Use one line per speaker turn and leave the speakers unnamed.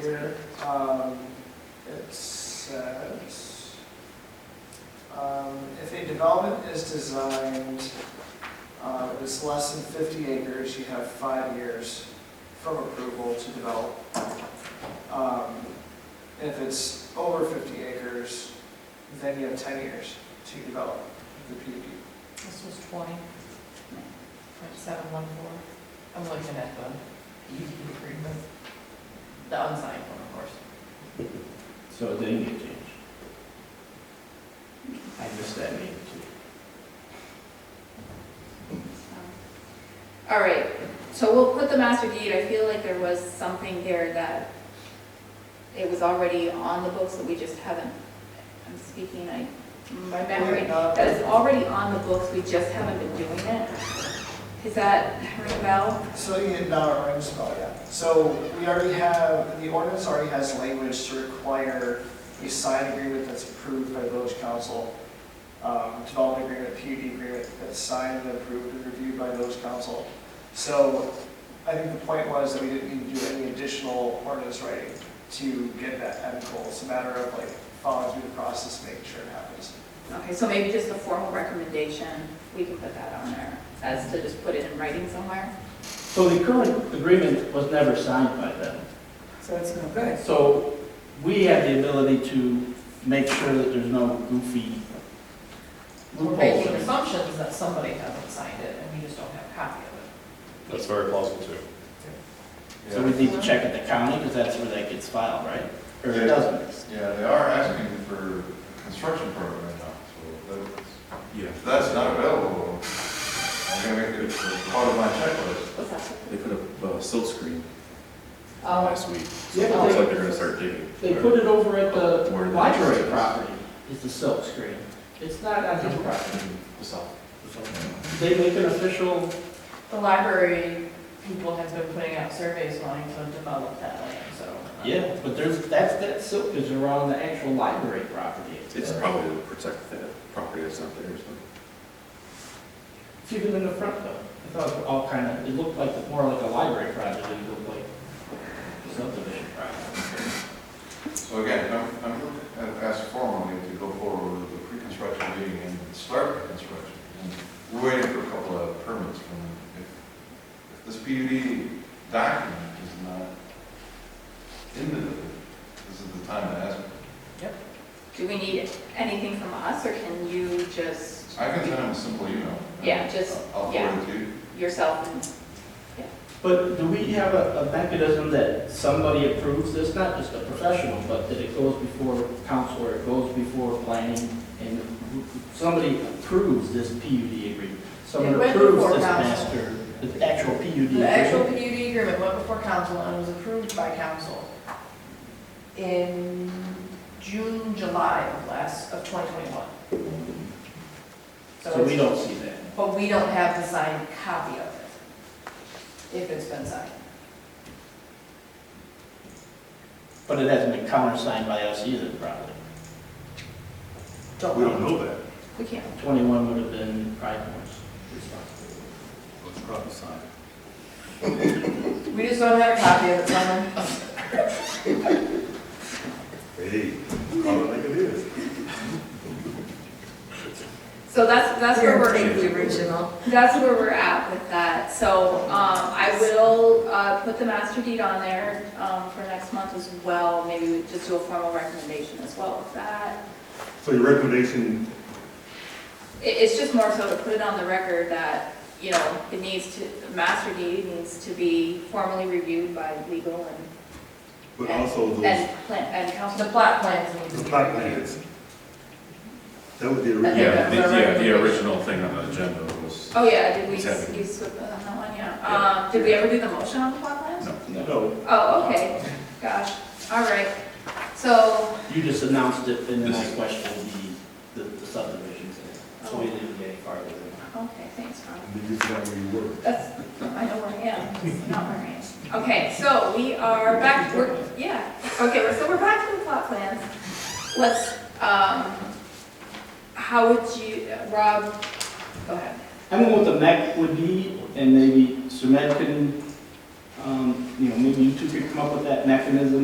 here, um, it says, um, if a development is designed, uh, it is less than fifty acres, you have five years from approval to develop. Um, and if it's over fifty acres, then you have ten years to develop the PUD.
This was twenty, point seven one four. I'm looking at the EP agreement, the unsigned one, of course.
So it didn't get changed. I missed that name too.
Um, All right, so we'll put the master deed, I feel like there was something there that it was already on the books that we just haven't, I'm speaking, I, my memory, that it's already on the books, we just haven't been doing it. Is that ring a bell?
So you did not ring spell yet. So we already have, the ordinance already has language to require a signed agreement that's approved by village council, um, development agreement, PUD agreement that's signed and approved and reviewed by village council. So I think the point was that we didn't need to do any additional ordinance writing to get that end goal. It's a matter of like following through the process, making sure it happens.
Okay, so maybe just a formal recommendation, we can put that on there, as to just put it in writing somewhere.
So the current agreement was never signed by them.
So it's no good.
So we have the ability to make sure that there's no goofy
We're making
loopholes.
assumptions that somebody hasn't signed it and we just don't have a copy of
That's very plausible too.
So we need to check at the county because that's where that gets filed, right? Or it
Yeah.
doesn't.
Yeah, they are asking for a construction permit right now, so that's,
Yeah.
if that's not available, I'm gonna make it part of my checklist.
What's that?
They put up a silt screen
it.
last week. So
Yeah,
it
but
looks
they-
like they're gonna start digging.
They put it over at the
Where the-
library property, is the silk screen. It's not on his property. They make an official,
The library people have been putting out surveys wanting to develop that land, so.
yeah, but there's, that's, that silk is around the actual library property.
It's probably to protect that property that's not theirs.
It's even in the front though. I thought it was all kind of, it looked like, more like a library project than it looked like subdivision project.
So again, I'm, I'm I've asked formally to go forward with the pre-construction meeting and start the construction. And We're waiting for a couple of permits from, if, if this PUD document is not in the, this is the time to ask.
Do we need anything from us, or can you just
I can send them a simple email.
Yeah, just-
I'll
yeah.
forward it to you.
yourself and
But do we have a, a mechanism that somebody approves this, not just a professional, but that it goes before council or it goes before planning and somebody approves this PUD
It
agreement? Someone
went
approves
before
this
council.
master, the actual PUD
The actual
agreement?
PUD agreement went before council and was approved by council in June, July of last, of 2021.
So we
it's-
don't see that.
But we don't have the signed copy of it, if it's been signed.
But it hasn't been countersigned by us either, probably.
Don't
know that.
we can't.
Twenty-one would have been Pride Month's responsibility.
It's probably signed.
We just don't have a copy of it, someone.
Hey, call it like it is.
So that's, that's where
Take the
we're,
original.
that's where we're at with that. So, um, I will, uh, put the master deed on there, um, for next month as well. Maybe we just do a formal recommendation as well with that.
So your recommendation,
It, it's just more so to put it on the record that, you know, it needs to, the master deed needs to be formally reviewed by legal
but also
and,
those,
and, plan- and council.
The plot plans need to be.
the plot plans, that would be the
I think
Yeah,
original.
the,
that's our
yeah, the
recommendation.
original thing on the agenda was,
Oh, yeah, did we,
It's happening.
you slipped on that one, yeah. Um, did we ever do the motion on the plot plan?
no, no.
No,
Oh, okay, gosh, all right. So,
You just announced it, and then I questioned the, the- the subdivisions, in it. so we didn't get any farther than that.
Okay, thanks, Ron.
and then you got where you were.
That's, I know where I am, it's not where I am. Okay, so we are back, we're, yeah, okay, we're- so we're back to the plot plans. Let's, um, how would you, Rob, go ahead.
I don't know what the mech would be, and maybe Sumed can, um, you know, maybe you two could come up with that mechanism